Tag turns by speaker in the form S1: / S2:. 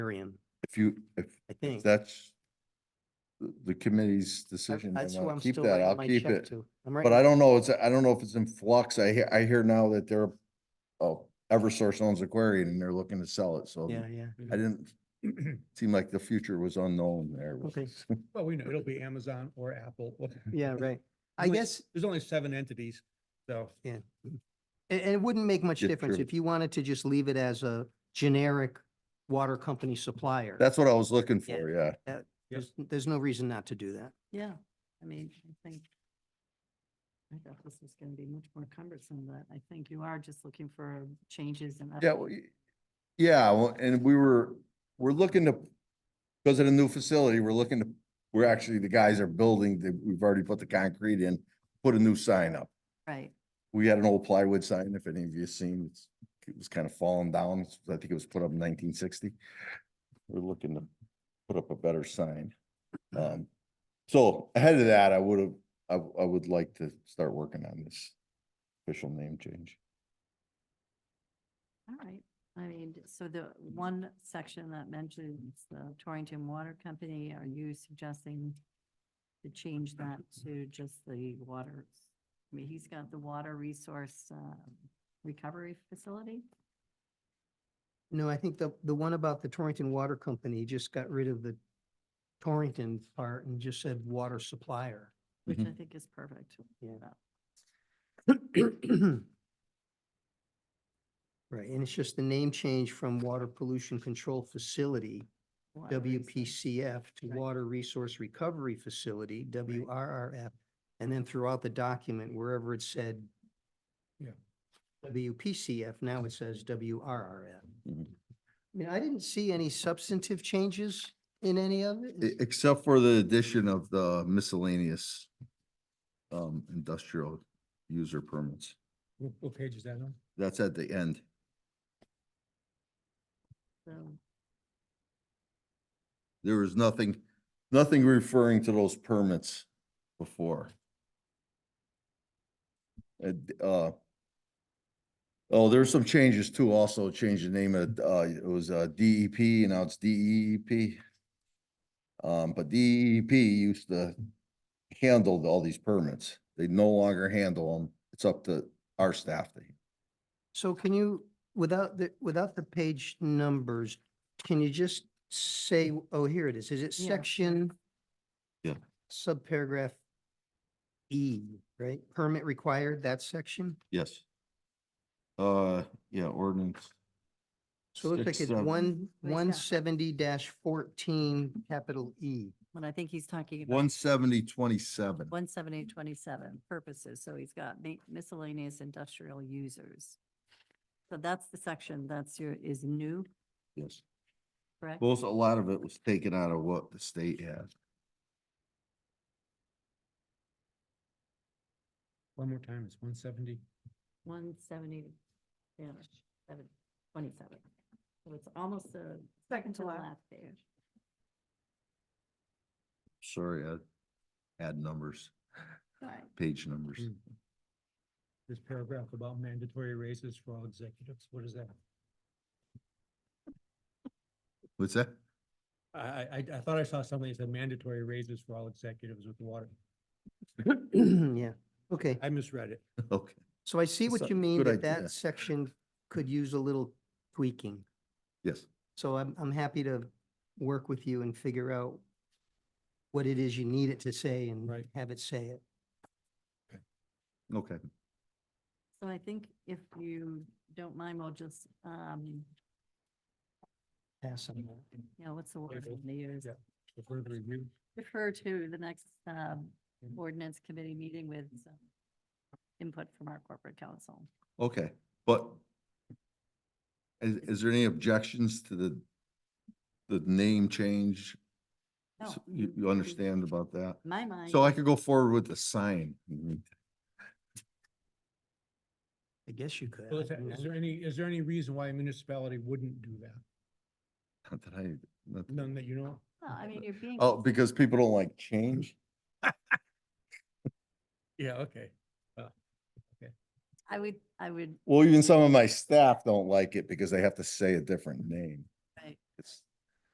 S1: librarian,
S2: If you, if
S1: I
S2: if
S1: think.
S2: that's the the committee's
S1: I-
S2: decision,
S1: That's
S2: then
S1: who
S2: I'll
S1: I'm
S2: keep
S1: still
S2: that.
S1: writing
S2: I'll
S1: my
S2: keep
S1: check
S2: it.
S1: to.
S2: But I don't know, it's, I don't know if it's in flux. I hear, I hear now that they're, oh, Eversource owns Aquarian and they're looking to sell it, so
S1: Yeah, yeah.
S2: I didn't, seem like the future was unknown there.
S1: Okay.
S3: Well, we know it'll be Amazon or Apple. or-
S1: Yeah, right. I
S3: Only-
S1: guess,
S3: There's only seven entities, so.
S1: and, and it wouldn't make much
S2: Yeah,
S1: difference
S2: true.
S1: if you wanted to just leave it as a generic water company supplier.
S2: That's what I was looking
S1: Yeah.
S2: for, yeah.
S1: There's, there's no reason not to do that.
S4: Yeah, I mean, I think. I thought this was gonna be much more cumbersome, but I think you are just looking for changes and.
S2: Yeah, well, y- yeah, well, and we were, we're looking to, because of the new facility, we're looking to, we're actually, the guys are building, the- we've already put the concrete in, put a new sign up.
S4: Right,
S2: We had an old plywood sign, if any of you seen, it's, it was kind of falling down. It's- I think it was put up in nineteen sixty. We're looking to put up a better sign. Um, so ahead of that, I would have, I, I would like to start working on this official name change.
S4: all right. I mean, so the one section that mentions the Torrington Water Company, are you suggesting to change that to just the water? I mean, he's got the water resource um, recovery facility?
S1: No, I think the, the one about the Torrington Water Company just got rid of the Torrington part and just said water supplier.
S4: Which I
S2: Mhm.
S4: think is perfect.
S1: Yeah.
S4: That-
S1: Right, and it's just the name change from Water Pollution Control Facility,
S4: water resource.
S1: WPCF, to
S4: Right.
S1: Water Resource Recovery Facility, WRRF. And then throughout the document, wherever it said
S3: Yeah.
S1: WPCF, now it says WRRF.
S2: Mhm.
S1: I mean, I didn't see any substantive changes in any of it.
S2: E- Except for the addition of the miscellaneous um, industrial user permits.
S3: What what page is that on?
S2: That's at the end.
S4: So,
S2: There was nothing, nothing referring to those permits before. And, uh, oh, there's some changes too, also changed the name of, uh, it was, uh, DEP, and now it's DEEP. Um, but DEP used to handle all these permits. They no longer handle them. It's up to our staff. to-
S1: So can you, without the, without the page numbers, can you just say, oh, here it is, is it
S4: Yeah.
S1: section?
S2: Yeah.
S1: Subparagraph E, right? Permit required, that section?
S2: Yes. Uh, yeah, ordinance.
S1: So it looks like
S2: Six,
S1: it's
S2: seven.
S1: one,
S4: Where's
S1: one
S4: that?
S1: seventy fourteen, capital E.
S4: But I think he's talking about.
S2: One seventy twenty-seven.
S4: One seventy twenty-seven purposes, so he's got ma- miscellaneous industrial users. So that's the section that's your, is new,
S2: Yes.
S4: correct?
S2: Most, a lot of it was taken out of what the state had.
S3: One more time, it's one seventy.
S4: One seventy, yeah, seven, twenty-seven. So it's almost the Second to last page.
S2: Sorry, I had numbers,
S4: Right.
S2: page numbers.
S1: Hmm.
S3: Mm. This paragraph about mandatory raises for all executives, what is that?
S2: What's that?
S3: I, I, I- I thought I saw something that said mandatory raises for all executives with water.
S1: Yeah, okay.
S3: I misread it.
S2: Okay.
S1: So I see what
S2: That's a
S1: you mean,
S2: good
S1: that
S2: idea.
S1: that section could use a little tweaking.
S2: Yes.
S1: So I'm, I'm happy to work with you and figure out what it is you need it to say and
S3: Right.
S1: have it say it.
S2: Okay.
S4: So I think if you don't mind, we'll just, um,
S1: Pass on that.
S4: you know, what's the word
S3: Table.
S4: in the years?
S3: Yeah. The further review,
S4: Refer to the next, um,
S2: Mm-hmm.
S3: Mhm.
S4: ordinance committee meeting with some input from our corporate council.
S2: Okay, but is, is there any objections to the, the name change? S-
S4: No,
S2: You, you understand about that?
S4: My mind.
S2: So I could go forward with the sign. Mhm.
S1: I guess you could.
S3: Well,
S1: I
S3: is that-
S1: mean,
S3: is
S1: I-
S3: there any, is there any reason why a municipality wouldn't do that?
S2: Not that I, not-
S3: None that you know? of?
S4: No, I mean, you're being.
S2: oh, because people don't like change?
S3: Yeah, okay.
S4: I would, I would,
S2: Well, even some of my staff don't like it because they have to say a different name.
S4: Right.
S2: It's